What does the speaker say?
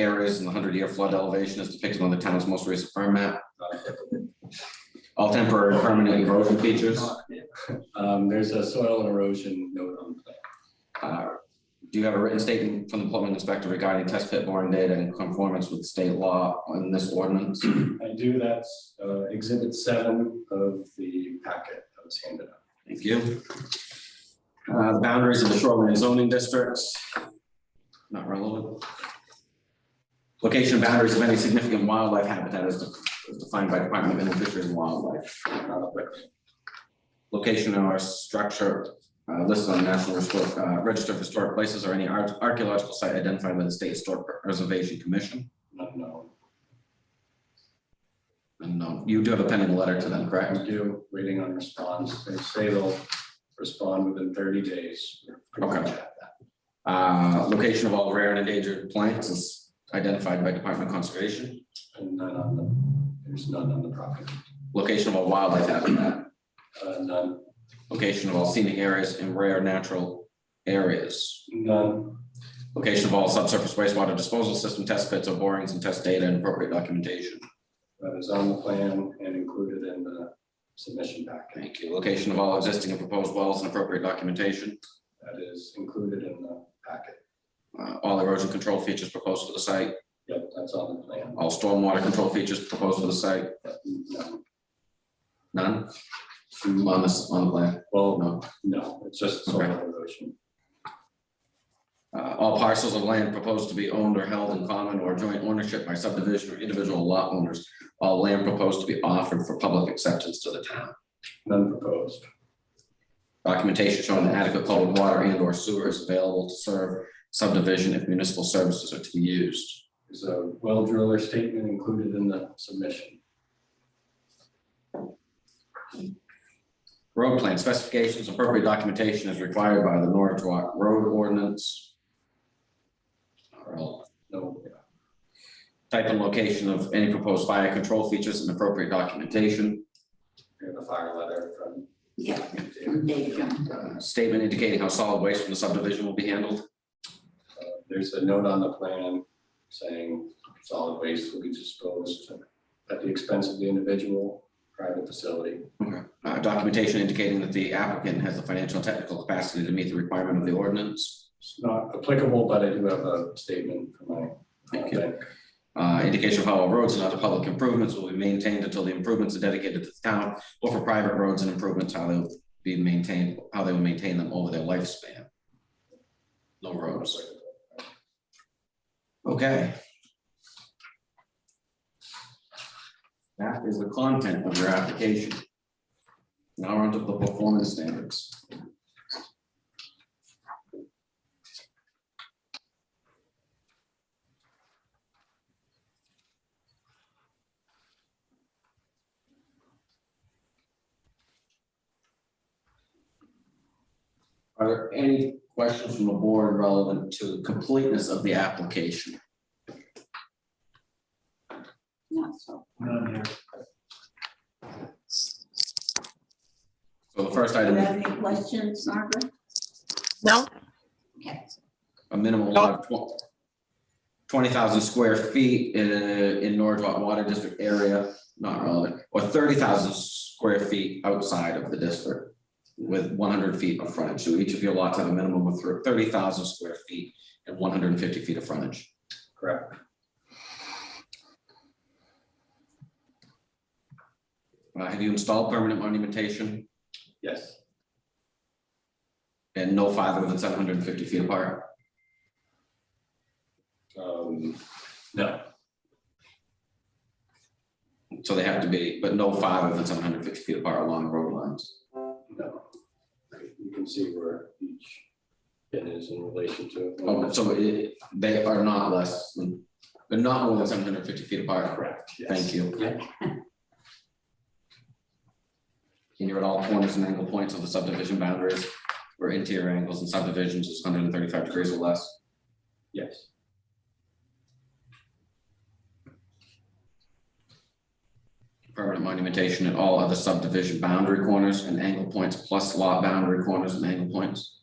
areas in the hundred year flood elevation is depicted on the town's most recent firm map. All temporary and permanent erosion features. Um, there's a soil and erosion note on the plan. Uh, Do you have a written statement from the plumbing inspector regarding test pit boring data in conformance with state law on this ordinance? I do, that's uh, exhibit seven of the packet that was handed out. Thank you. Uh, the boundaries of the shoreline zoning districts. Not relevant. Location and boundaries of any significant wildlife habitat as de- as defined by Department of Inland Fisheries and Wildlife. Not a brick. Location or structure uh, listed on National Historic, uh, Register of Historic Places or any ar- archaeological site identified by the State Historic Preservation Commission. Not known. And um, you do have a pending letter to them, correct? I do, waiting on response. They say they'll respond within thirty days. We're pretty much at that. Uh, location of all rare and endangered plants is identified by Department of Conservation. And none on the, there's none on the property. Location of all wildlife habitat, Uh, None, location of all scenic areas and rare natural areas. none, Location of all subsurface wastewater disposal system test pits or borings and test data and appropriate documentation. that is on the plan and included in the submission packet. Thank you. Location of all existing and proposed wells and appropriate documentation. That is included in the packet. Uh, All erosion control features proposed for the site, Yep, that's on the plan. all stormwater control features proposed for the site, Yep, none. none on this, on the plan. Well, No. No, it's just soil erosion. Uh, All parcels of land proposed to be owned or held in common or joint ownership by subdivision or individual lot owners. All land proposed to be offered for public acceptance to the town. None proposed. Documentation showing that adequate public water and or sewer is available to serve subdivision if municipal services are to be used. Is a well driller statement included in the submission? Road plan specifications, appropriate documentation is required by the Norwood Road Ordinance. Or No, Type and location of any proposed fire control features and appropriate documentation. we have a fire letter from. Yeah, from Dave Jones. Uh, Statement indicating how solid waste from the subdivision will be handled. Uh, There's a note on the plan saying solid waste will be disposed at the expense of the individual private facility. Uh, Documentation indicating that the applicant has the financial and technical capacity to meet the requirement of the ordinance. It's not applicable, but I do have a statement from my. uh, Thank you. bank. Uh, indication of how all roads and other public improvements will be maintained until the improvements are dedicated to the town, or for private roads and improvements, how they'll be maintained, how they will maintain them over their lifespan. No roads, okay. That is the content of your application. Now we're onto the performance standards. Are there any questions from the board relevant to the completeness of the application? Not so. So the first Do you item have is any questions, Margaret? No, Okay. a minimum lot of tw- twenty thousand square feet in in Norwood Water District area, not relevant, or thirty thousand square feet outside of the district with one hundred feet of frontage. So each of your lots have a minimum of thirty thousand square feet and one hundred and fifty feet of frontage. Correct. Uh, Have you installed permanent monumentation Yes, and no farther than seven hundred and fifty feet apart? um, no, So they have to be, but no farther than seven hundred and fifty feet apart along road lines. no. You can see where each pin is in relation to. Oh, so it, they are not less, than- they're not more than seven hundred fifty feet apart. Correct, yes. Thank you. Yeah. And you're at all corners and angle points of the subdivision boundaries, where interior angles and subdivisions is hundred and thirty-five degrees or less. Yes, Permanent monumentation at all other subdivision boundary corners and angle points plus lot boundary corners and angle points.